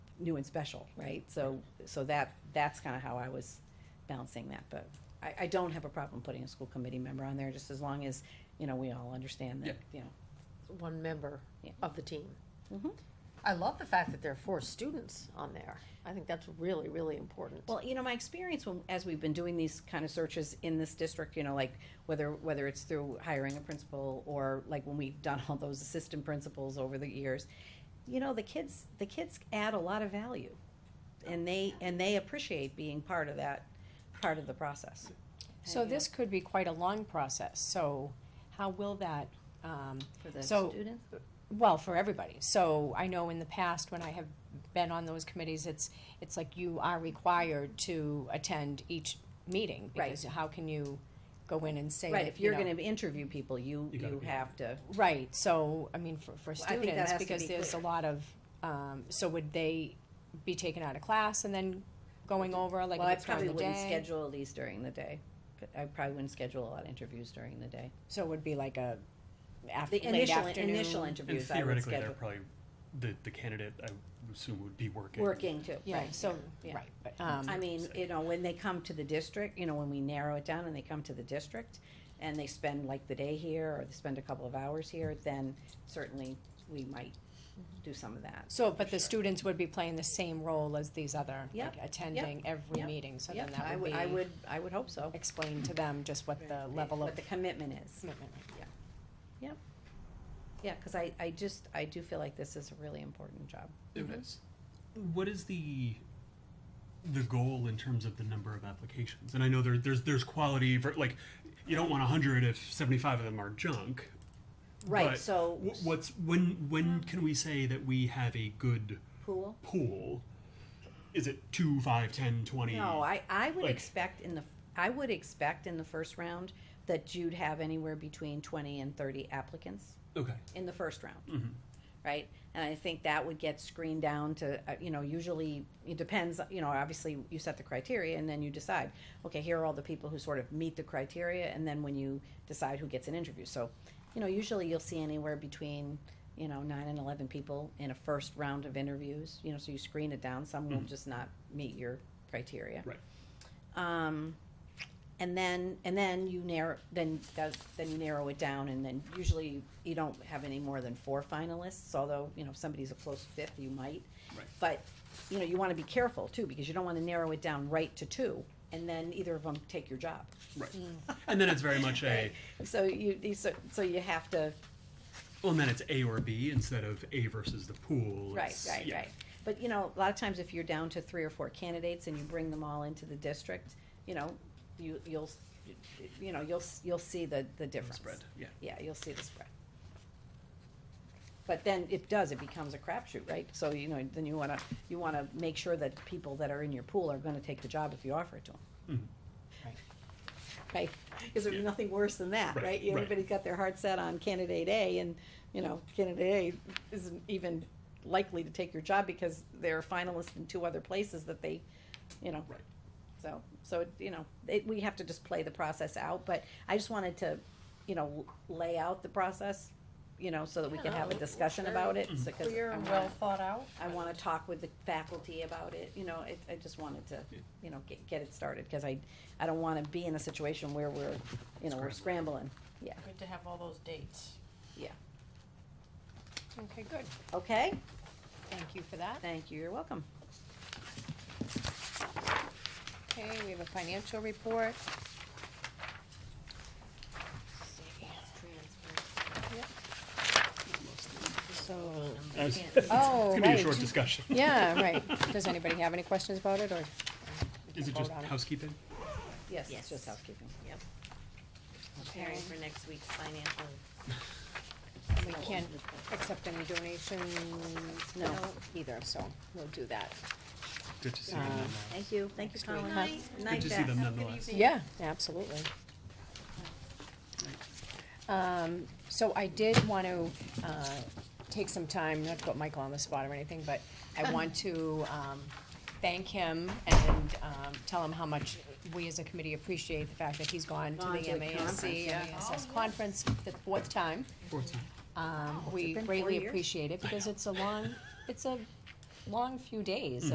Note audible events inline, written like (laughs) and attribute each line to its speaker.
Speaker 1: new and special, right? So, so that, that's kinda how I was balancing that, but I, I don't have a problem putting a school committee member on there, just as long as, you know, we all understand that, you know.
Speaker 2: one member
Speaker 1: Yeah.
Speaker 2: of the team.
Speaker 1: Mhm.
Speaker 2: I love the fact that there are four students on there. I think that's really, really important.
Speaker 1: Well, you know, my experience when, as we've been doing these kind of searches in this district, you know, like whether, whether it's through hiring a principal or like when we've done all those assistant principals over the years, you know, the kids, the kids add a lot of value. And they, and they appreciate being part of that, part of the process.
Speaker 3: So this could be quite a long process, so how will that, um,
Speaker 1: For the
Speaker 3: So-
Speaker 1: students?
Speaker 3: well, for everybody. So I know in the past, when I have been on those committees, it's, it's like you are required to attend each meeting.
Speaker 1: Right.
Speaker 3: Because how can you go in and say
Speaker 1: Right,
Speaker 3: that,
Speaker 1: if
Speaker 3: you
Speaker 1: you're
Speaker 3: know-
Speaker 1: gonna interview people, you,
Speaker 4: You gotta
Speaker 1: you
Speaker 4: be-
Speaker 1: have to,
Speaker 3: Right, so, I mean, for, for
Speaker 1: Well, I think that has
Speaker 3: students,
Speaker 1: to
Speaker 3: because
Speaker 1: be
Speaker 3: there's a
Speaker 1: clear.
Speaker 3: lot of, um, so would they be taken out of class and then going over, like,
Speaker 1: well, I
Speaker 3: if it's during
Speaker 1: probably
Speaker 3: the
Speaker 1: wouldn't
Speaker 3: day?
Speaker 1: schedule these during the day. I probably wouldn't schedule a lot of interviews during the day.
Speaker 3: So it would be like a af-
Speaker 1: The
Speaker 3: late
Speaker 1: initial,
Speaker 3: afternoon?
Speaker 1: initial
Speaker 4: And
Speaker 1: interviews I would
Speaker 4: theoretically, they're
Speaker 1: schedule,
Speaker 4: probably, the, the candidate, I would assume, would be working.
Speaker 1: working too,
Speaker 3: Yeah,
Speaker 1: right.
Speaker 3: so,
Speaker 1: yeah.
Speaker 3: right, but, um.
Speaker 1: I mean, you know, when they come to the district, you know, when we narrow it down and they come to the district and they spend like the day here or they spend a couple of hours here, then certainly we might do some of that.
Speaker 3: So, but the students would be playing the same role as these other,
Speaker 1: Yep,
Speaker 3: like attending every
Speaker 1: yep,
Speaker 3: meeting, so
Speaker 1: Yeah,
Speaker 3: then
Speaker 1: I
Speaker 3: that would
Speaker 1: I
Speaker 3: be,
Speaker 1: would, I would hope so.
Speaker 3: explain to them just what the level of
Speaker 1: What the commitment is.
Speaker 3: commitment.
Speaker 1: Yeah, cause I, I just, I do feel like this is a really important job.
Speaker 4: It is. What is the the goal in terms of the number of applications? And I know there, there's there's quality for like you don't want hundred if seventy five of them are junk.
Speaker 1: Right,
Speaker 4: but
Speaker 1: so
Speaker 4: wh- what's when when can we say that we have a good
Speaker 1: pool?
Speaker 4: pool? Is it two, five, ten, twenty?
Speaker 1: No, I, I would
Speaker 4: like-
Speaker 1: expect in the, I would expect in the first round that you'd have anywhere between twenty and thirty applicants
Speaker 4: Okay.
Speaker 1: in the first round.
Speaker 4: hmm
Speaker 1: right? And I think that would get screened down to, uh, you know, usually it depends, you know, obviously you set the criteria and then you decide, okay, here are all the people who sort of meet the criteria, and then when you decide who gets an interview. So, you know, usually you'll see anywhere between, you know, nine and 11 people in a first round of interviews, you know, so you screen it down. Some will
Speaker 4: Mhm.
Speaker 1: just not meet your criteria.
Speaker 4: Right.
Speaker 1: Um, and then and then you narrow then that, then you narrow it down and then usually you don't have any more than four finalists although you know if somebody's a close fifth you might
Speaker 4: Right.
Speaker 1: but you know you want to be careful too because you don't want to narrow it down right to two and then either of them take your job
Speaker 4: Right.
Speaker 1: Mm.
Speaker 4: And then it's very much
Speaker 1: (laughs)
Speaker 4: a
Speaker 1: so you you- so, so you have to
Speaker 4: well, and then it's A or B instead of A versus the pool.
Speaker 1: Right,
Speaker 4: It's-
Speaker 1: right,
Speaker 4: yeah.
Speaker 1: right. But, you know, a lot of times if you're down to three or four candidates and you bring them all into the district, you know, you, you'll, you know, you'll, s- you'll see the, the difference.
Speaker 4: spread, yeah.
Speaker 1: Yeah, you'll see the spread. But then it does, it becomes a crapshoot, right? So, you know, then you wanna, you wanna make sure that people that are in your pool are gonna take the job if you offer it to them.
Speaker 4: Mhm.
Speaker 1: Right, because there's
Speaker 4: Yeah.
Speaker 1: nothing worse than that,
Speaker 4: Right,
Speaker 1: right?
Speaker 4: right.
Speaker 1: Everybody's got their heart set on candidate A and, you know, candidate A isn't even likely to take your job because they're a finalist in two other places that they, you know.
Speaker 4: Right.
Speaker 1: So, so, it- you know, it, we have to just play the process out, but I just wanted to, you know, lay out the process, you know, so that we can
Speaker 2: Yeah,
Speaker 1: have a
Speaker 2: we're
Speaker 1: discussion
Speaker 2: very
Speaker 1: about it, so, cause
Speaker 2: Clear
Speaker 1: I
Speaker 2: and well
Speaker 1: wanna,
Speaker 2: thought out.
Speaker 1: I wanna talk with the faculty about it, you know, it, I just wanted to,
Speaker 4: Yeah.
Speaker 1: you know, get, get it started, cause I, I don't wanna be in a situation where we're, you know, we're scrambling, yeah,
Speaker 2: Good to have all those dates.
Speaker 1: yeah.
Speaker 3: Okay, good,
Speaker 1: Okay,
Speaker 3: thank you for that.
Speaker 1: thank you, you're welcome.
Speaker 3: Okay, we have a financial report. So,
Speaker 4: I
Speaker 3: oh,
Speaker 4: was- (laughs) it's gonna be a short
Speaker 3: right,
Speaker 4: discussion.
Speaker 3: (laughs) yeah, right, does anybody have any questions about it, or?
Speaker 4: Is it
Speaker 3: Vote
Speaker 4: just
Speaker 3: on it.
Speaker 4: housekeeping?
Speaker 1: Yes, it's
Speaker 5: Yes.
Speaker 1: just housekeeping.
Speaker 5: preparing for next week's financial.
Speaker 3: We can't accept any donations, no, either, so we'll do that.
Speaker 4: Good to see
Speaker 3: Uh,
Speaker 4: you. Nana.
Speaker 1: Thank you, thank you,
Speaker 3: Next week.
Speaker 1: Colin.
Speaker 3: Huh.
Speaker 1: Good
Speaker 4: Good to see them nonetheless.
Speaker 3: Yeah, absolutely. Um, so I did want to, uh, take some time, not to put Michael on the spot or anything, but
Speaker 1: (laughs)
Speaker 3: I want to, um, thank him and, um, tell him how much we as a committee appreciate the fact that he's gone to
Speaker 1: Gone to
Speaker 3: the
Speaker 1: the conference,
Speaker 3: MASC,
Speaker 1: yeah.
Speaker 3: MASS conference, the fourth time.
Speaker 4: Fourteen.
Speaker 3: Um,
Speaker 1: Wow, has it
Speaker 3: we
Speaker 1: been four
Speaker 3: greatly
Speaker 1: years?
Speaker 3: appreciate it because it's a long, it's a long few days